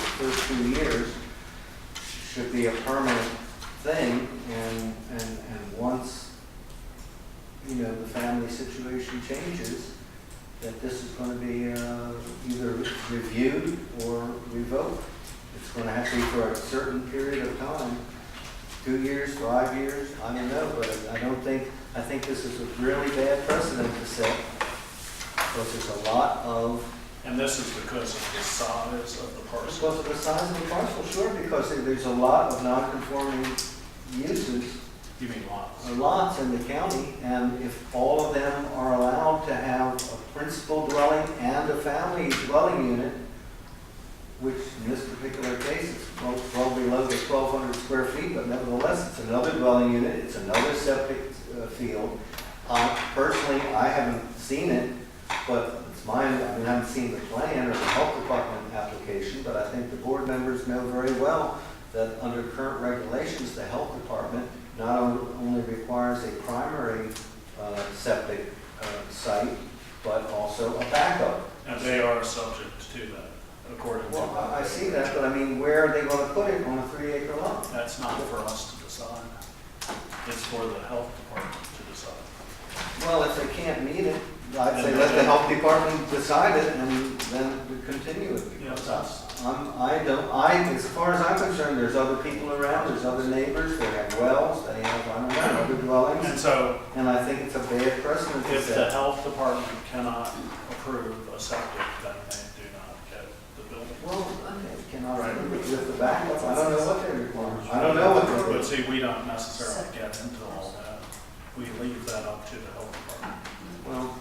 first two years should be a permanent thing, and, and, and once, you know, the family situation changes, that this is gonna be, uh, either reviewed or revoked. It's gonna have to be for a certain period of time, two years, five years, I don't know, but I don't think, I think this is a really bad precedent to set, because there's a lot of And this is because of the size of the parcel. because of the size of the parcel, sure, because there- there's a lot of non-conforming uses You mean lots? or lots in the county, and if all of them are allowed to have a principal dwelling and a family dwelling unit, which in this particular case is well well below the twelve hundred square feet, but nevertheless, it's another dwelling unit, it's another septic uh, field. Uh, Personally, I haven't seen it, but it's mine, I mean, I haven't seen the plan or the health department application, but I think the board members know very well that under current regulations, the health department not on- only requires a primary uh, septic uh, site, but also a backup. And they are subject to that, according to. Well, I I see that, but I mean, where are they going to put it on a three acre lot? That's not for us to decide. It's for the health department to decide. Well, if they can't meet it, I'd say let the health department decide it and then we continue it. Yeah, Because that's- I'm, I don't, I, as far as I'm concerned, there's other people around, there's other neighbors, they have wells, they have, I don't know, other And dwellings. so And I think it's a bad precedent to if the set. health department cannot approve a septic, then they do not get the building. Well, I cannot, Right. with the backup, I don't know what they require. I don't know what they're. But see, we don't necessarily get into all that. We leave that up to the health department. Well,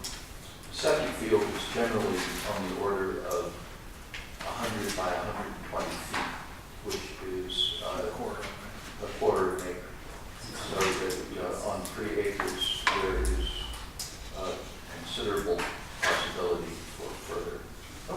Septic field is generally on the order of 100 by 120 feet, which is uh, The quarter. a quarter of an acre. So that, you know, on three acres, there is uh, considerable possibility for further.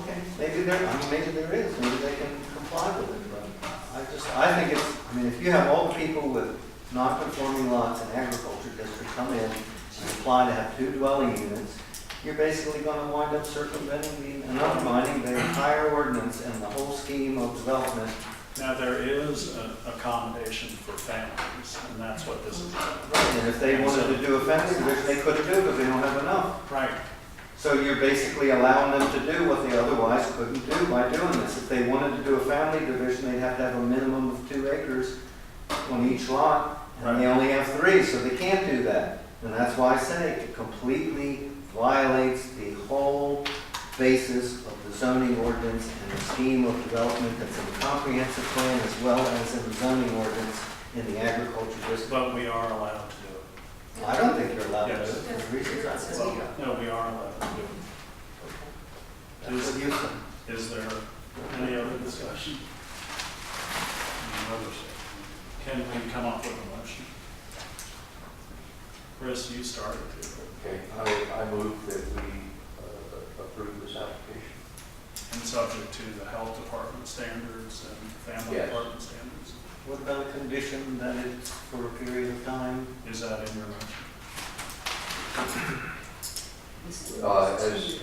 okay, maybe there, I mean, maybe there is, maybe they can comply with it, but I just, I think it's, I mean, if you have all the people with non-conforming lots in agriculture district come in and apply to have two dwelling units, you're basically gonna wind up circumventing the, and undermining the entire ordinance and the whole scheme of development. Now, there is an accommodation for families, and that's what this is about. And if they wanted to do a fence, which they couldn't do because they don't have enough. Right, So you're basically allowing them to do what they otherwise couldn't do by doing this. If they wanted to do a family division, they'd have to have a minimum of two acres on each lot, and they only have three, so they can't do that. And that's why I say it completely violates the whole basis of the zoning ordinance and the scheme of development that's in the comprehensive plan as well as in the zoning ordinance in the agriculture district. but we are allowed to do I don't think you're allowed to do it for the reasons I it. said. Well, no, we are allowed to do That's what you said. it. Is there any other discussion? Can we come up with a motion? Chris, you started to, Okay, I, I move that we uh, approve this application. and subject to the health department standards and family Yes. department standards. What about a condition that it's for a period of time? Is that in your motion? Uh, as-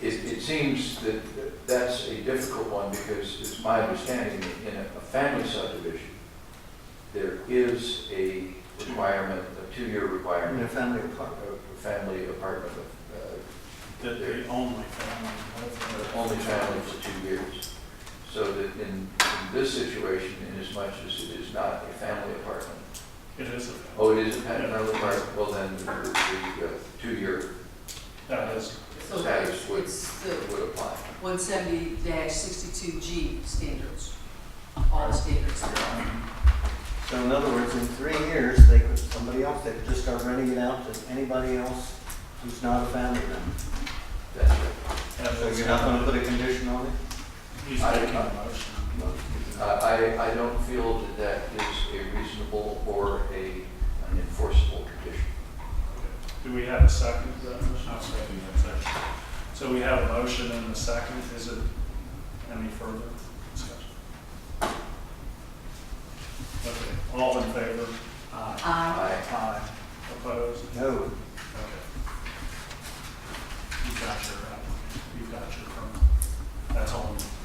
It, it seems that that's a difficult one because it's my understanding that in a a family subdivision, there is a requirement, a two-year In a requirement family of apartment? a family apartment, of, That the only family. uh, only family for two years. So that in in this situation, inasmuch as it is not a family apartment, It is a. oh, it is a family apartment, well then the, the uh, two-year That is, So it's, it's the would apply. one seventy sixty-two G standards, all the standards that are. So in other words, in three years, they could, somebody else, they could just start renting it out to anybody else who's not a family member. That's right. that So is- you're not gonna put a condition on it? He's making a motion. Uh, I, I don't feel that that is a reasonable or a, an enforceable condition. Do we have a second to that motion? I'll second that. So we have a motion and a second. Is it any further discussion? Okay, all in favor? Aye. I, I, Aye. Opposed? No. uh,